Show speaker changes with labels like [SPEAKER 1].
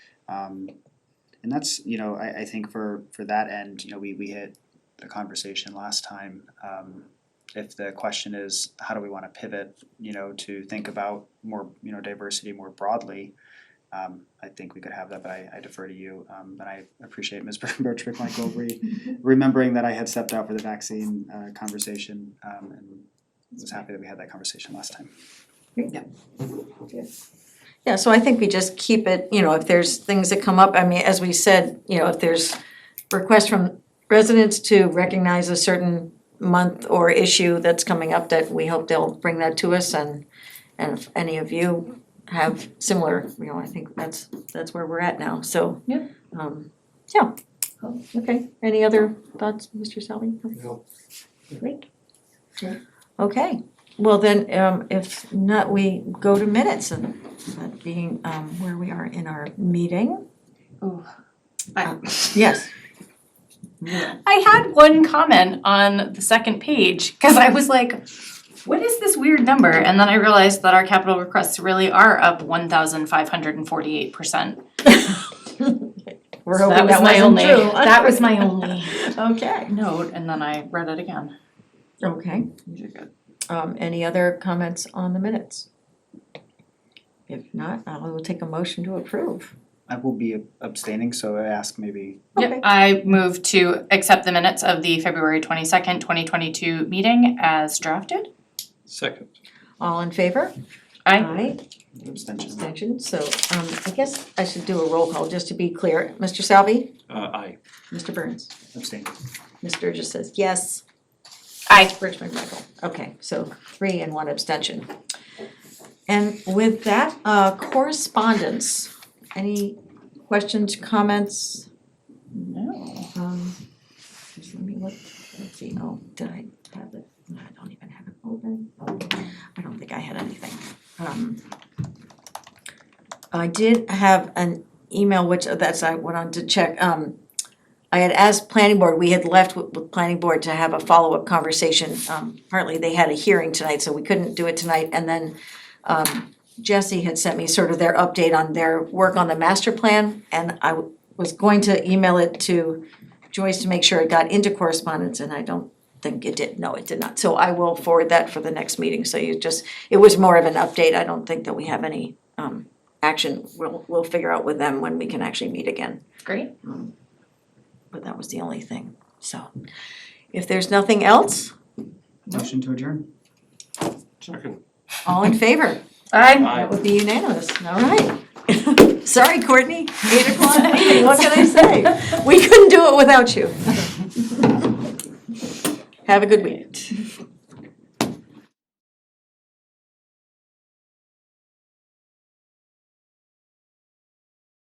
[SPEAKER 1] Um and that's, you know, I I think for for that end, you know, we we hit the conversation last time. Um if the question is, how do we wanna pivot, you know, to think about more, you know, diversity more broadly? Um I think we could have that, but I I defer to you, um but I appreciate Ms. Bertrick Michael re- remembering that I had stepped out for the vaccine uh conversation um and was happy that we had that conversation last time.
[SPEAKER 2] Yeah, so I think we just keep it, you know, if there's things that come up, I mean, as we said, you know, if there's requests from residents to recognize a certain month or issue that's coming up, that we hope they'll bring that to us and and if any of you have similar, you know, I think that's that's where we're at now, so.
[SPEAKER 3] Yeah.
[SPEAKER 2] Um, yeah,
[SPEAKER 3] Cool.
[SPEAKER 2] okay, any other thoughts, Mr. Salvi?
[SPEAKER 4] No.
[SPEAKER 2] Great.
[SPEAKER 3] Yeah.
[SPEAKER 2] Okay, well then, um, if not, we go to minutes and that being um where we are in our meeting.
[SPEAKER 3] Ooh.
[SPEAKER 2] Uh, Yes,
[SPEAKER 3] I had one comment on the second page, cause I was like, what is this weird number? And then I realized that our capital requests really are up one thousand five hundred and forty-eight percent.
[SPEAKER 2] we're hoping that wasn't true.
[SPEAKER 3] That was my only
[SPEAKER 2] Okay,
[SPEAKER 3] note, and then I read it again.
[SPEAKER 2] okay.
[SPEAKER 3] These are good.
[SPEAKER 2] Um any other comments on the minutes? If not, I will take a motion to approve.
[SPEAKER 1] I will be abstaining, so I ask maybe
[SPEAKER 2] Okay.
[SPEAKER 3] Yep, I move to accept the minutes of the February twenty-second, twenty twenty-two meeting as drafted.
[SPEAKER 4] Second.
[SPEAKER 2] All in favor?
[SPEAKER 3] I,
[SPEAKER 1] abstention.
[SPEAKER 2] Abstention, so um I guess I should do a roll call just to be clear. Mr. Salvi?
[SPEAKER 4] Uh, aye.
[SPEAKER 2] Mr. Burns?
[SPEAKER 1] Abstain.
[SPEAKER 2] Ms. Burgess says yes.
[SPEAKER 3] Aye.
[SPEAKER 2] Rich McMichael, okay, so three and one abstention. And with that, uh correspondence, any questions, comments?
[SPEAKER 3] no,
[SPEAKER 2] Um, just let me look, let's see, oh, did I have it, No, I don't even have it open. I don't think I had anything. Um. I did have an email, which uh, that's I went on to check, um. I had asked planning board, we had left with with planning board to have a follow-up conversation, um partly they had a hearing tonight, so we couldn't do it tonight, and then. Um Jesse had sent me sort of their update on their work on the master plan, and I w- was going to email it to. Joyce to make sure it got into correspondence, and I don't think it did, no, it did not. So I will forward that for the next meeting, so you just, it was more of an update, I don't think that we have any um action. We'll we'll figure out with them when we can actually meet again,
[SPEAKER 3] great.
[SPEAKER 2] but that was the only thing, so. If there's nothing else,
[SPEAKER 1] Motion to adjourn.
[SPEAKER 4] Second.
[SPEAKER 2] all in favor,
[SPEAKER 3] I,
[SPEAKER 4] Aye.
[SPEAKER 2] that would be unanimous, all right. Sorry, Courtney, eight o'clock meeting, what can I say? We couldn't do it without you. Have a good week.